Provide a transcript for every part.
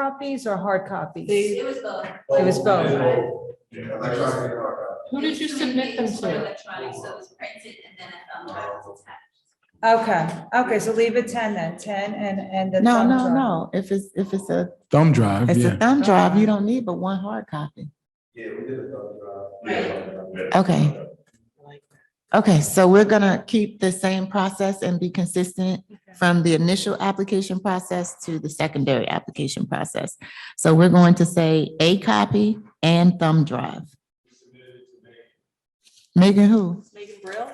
copies or hard copies? They- It was both. It was both. Yeah, electronic hard copy. Who did you It's submit them communications to? for Electronic, so it was printed and then a thumb drive was attached. Okay, okay, so leave it ten then, ten and, and the. No, thumb no, drive. no. If it's, if it's a, Thumb drive, it's a yeah. thumb drive, you don't need but one hard copy. Yeah, we did a thumb drive. Right. uh, Yeah. uh, Okay. Okay, so we're gonna keep the same process and be consistent from the initial application process to the secondary application process. So we're going to say a copy and thumb drive. Megan who? Megan Brill?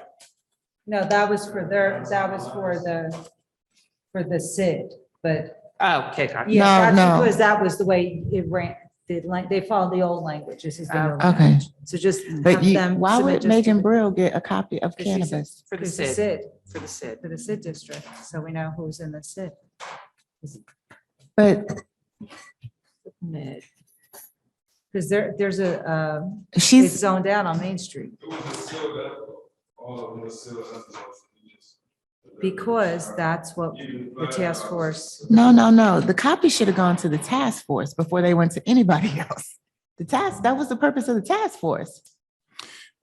No, that was for their, that was for the, for the SID, but. Okay, gotcha. yeah, that's No, no. Because that was the way it ran, the, lang- they followed the old languages. is the new Oh, Okay. language. So just But have you, them. why submit would just Megan to- Brill get a copy of Because she's a- cannabis? For the because the SID, SID, for the SID. for the SID district, so we know who's in the SID. But Because there, there's a, uh, it's she's, zoned out on Main Street. Because that's what the task uh, force, no, no, no. The copy should have gone to the task force before they went to anybody else. The task, that was the purpose of the task force.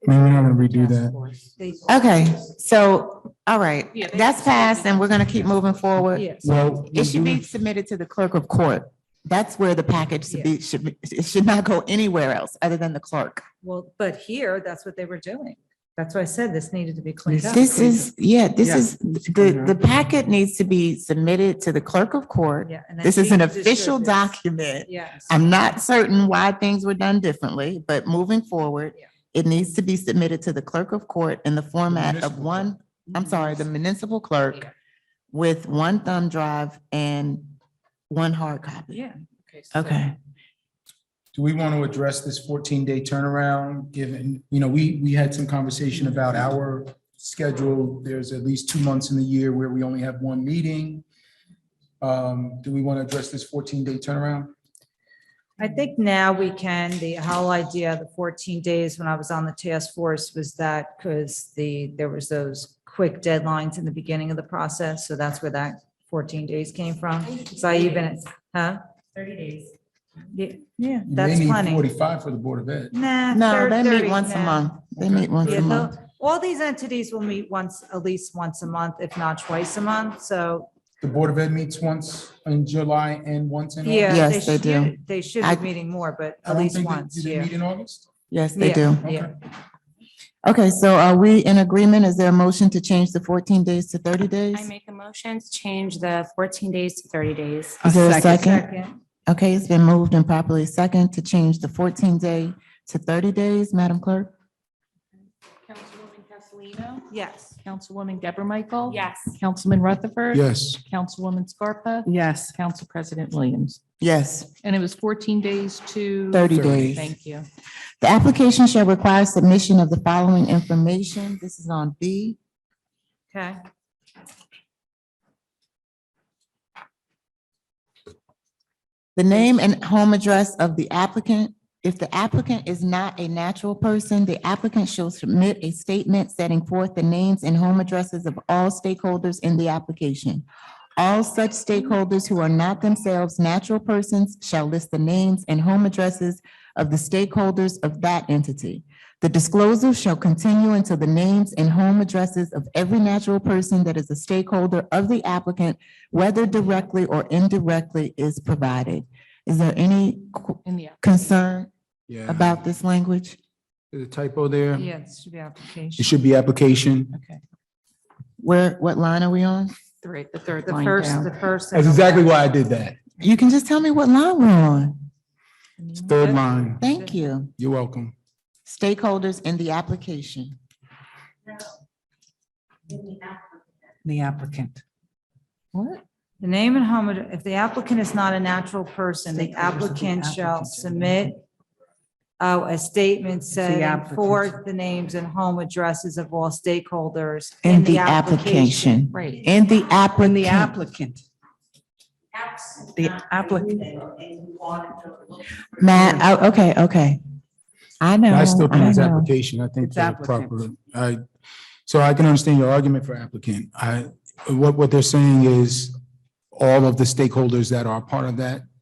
Maybe we're not gonna redo that. they, Okay, so, all right, Yeah, they- that's passed and we're gonna keep moving forward. yes. Well. It should be submitted to the clerk of court. That's where the package should be, should be, it should not go anywhere else other than the clerk. Well, but here, that's what they were doing. That's why I said this needed to be cleaned up. This is, yeah, this Yeah. is, the, the packet needs to be submitted to the clerk of court. Yeah, and then This is she an distributed official this. document. Yes. I'm not certain why things were done differently, but moving forward, Yeah. it needs to be submitted to the clerk of court in the format of municipal one, I'm sorry, the municipal clerk Yeah. with one thumb drive and one hard copy. Yeah. so- Okay, Do we want to address this fourteen day turnaround, given, you know, we, we had some conversation about our schedule. There's at least two months in the year where we only have one meeting. Um, do we want to address this fourteen day turnaround? I think now we can, the whole idea of the 14 days when I was on the task force was that because the, there was those quick deadlines in the beginning of the process. So that's where that 14 days came from. So I even, huh? 30 days. Yeah, Yeah, You may that's need plenty. Forty-five for the Board of Ed. Nah. no, thir- they meet 30, once a nah. month. They meet once Yeah, a month. no, all these entities will meet once, at least once a month, if not twice a month. So, The Board of Ed meets once in July and once in. August? yeah. Yes, they should- do. They should I- be meeting more, but I at don't least think they- once, Do they yeah. meet in August? Yes, they Yeah. do. Yeah. Okay. Okay, so are we in agreement? Is there a motion to change the fourteen days to thirty days? I make a motion to change the fourteen days to thirty days. Is there a second? Second, Okay, it's been moved and properly second to change the fourteen day to thirty days, Madam Clerk? Councilwoman Castellino? Yes. Councilwoman Deborah Michael. Yes. Councilman Rutherford. Yes. Councilwoman Scarpa. Yes. Council President Williams. Yes, And it was fourteen days to. thirty days. Thank you. The application shall require submission of the following information. This is on B. Okay. The name and home address of the applicant. If the applicant is not a natural person, the applicant shall submit a statement setting forth the names and home addresses of all stakeholders in the application. All such stakeholders who are not themselves natural persons shall list the names and home addresses of the stakeholders of that entity. The disclosure shall continue until the names and home addresses of every natural person that is a stakeholder of the applicant, whether directly or indirectly, is provided. Is there any qu- In the, concern Yeah. about this language? The typo there. Yeah, this should be It application. should be application. okay, Where, what line are we on? three, the third The line first, down. the first. That's exactly why I did that. You can just tell me what line we're on. It's Third line. Thank you. You're welcome. Stakeholders in the application. the applicant. What? The name and home, ad- if the applicant is not a natural person, the applicant shall submit oh, a statement setting applicant. forth the names and home addresses of all stakeholders In the application. Right. In the When the applicant. applicant, Absolutely. the applicant, Matt, oh, okay, okay. I know. I still think I it's know. application. I think It's they're applicant. proper. I, so I can understand your argument for applicant. I, what, what they're saying is all of the stakeholders that are part of that